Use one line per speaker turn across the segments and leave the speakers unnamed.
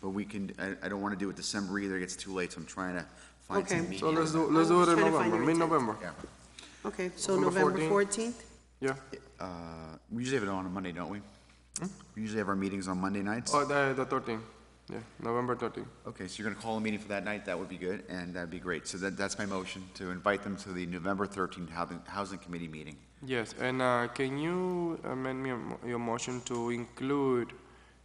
but we can, I, I don't wanna do it December either, it gets too late, so I'm trying to find
Okay.
some
So
meat.
So let's do, let's do it in
Trying to find
November,
your
mid-November,
Yeah.
Okay, so
November
November 14th?
yeah.
Uh, we usually have it on a Monday, don't we? We usually have our meetings on Monday nights.
Oh, the, the thirteen, yeah, November thirteen.
Okay, so you're gonna call a meeting for that night, that would be good, and that'd be great. So that, that's my motion, to invite them to the November thirteenth housing, housing committee meeting.
Yes, and uh, can you amend me your- your motion to include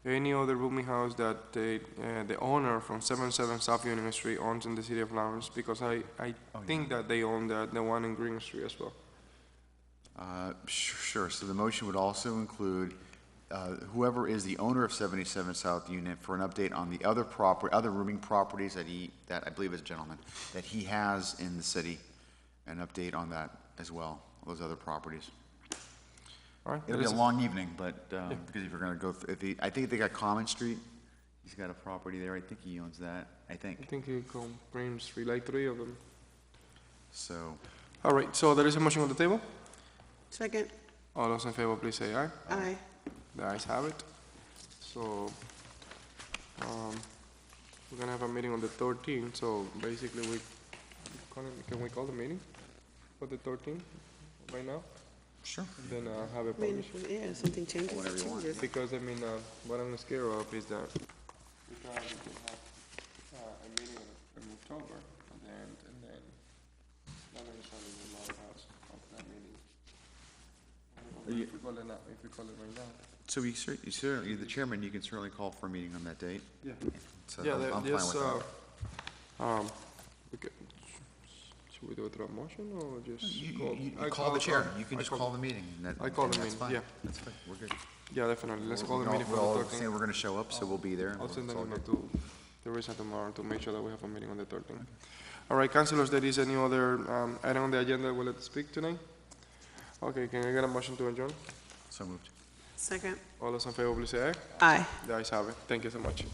any other rooming house that the, uh, the owner from 77 South Union Street owns in the city of Lawrence? Because I, I think that they own the, the one in Green Street as well.
Uh, su- Sure, so the motion would also include uh, whoever is the owner of 77 South Unit for an update on the other property, other rooming properties that he, that I believe is a gentleman, that he has in the city, an update on that as well, those other properties.
All right?
It'll
that
be a
is-
long evening, but, um, because if you're gonna go, th- if he, I think they got Common Street, he's got a property there, I think he owns that, I
I
think,
think it come Green Street, like three of them.
so.
All right, so there is a motion on the table?
Second?
All those in favor, please say aye.
Aye.
The ayes have it. So, um, we're gonna have a meeting on the thirteenth, so basically we, can can we call the meeting for the thirteenth by now?
Sure.
Then uh have a
I mean,
publish.
yeah, something changes, it changes.
Because, I mean, uh, what I'm scared of is that we probably can have, uh, a meeting in in October, and then, and then, not necessarily the law house of that meeting. If we call it, now- if we call it right now.
So you cer, you cer, you're the chairman, you can certainly call for a meeting on that date.
Yeah.
So
Yeah,
I'm-
there-
I'm fine
there's,
with that.
uh, um, we ca- should we do it through a motion or
You,
just?
you-
I
you call the chair, you can
I
just call the meeting. and that-
I call
and
the
that's
meeting,
fine.
yeah.
That's fine, we're good.
Yeah, definitely, let's
We
call the
can
meeting
all-
for
We'll
the
all say
thirteenth.
we're gonna show up, so we'll be there.
I'll
It's
send an
all
email
good.
to Teresa tomorrow to make sure that we have a meeting on the thirteenth. All right, councilors, there is any other um, item on the agenda we'll let speak tonight? Okay, can I get a motion to adjourn?
So moved.
Second?
All those in favor, please say aye.
Aye.
The ayes have it, thank you so much.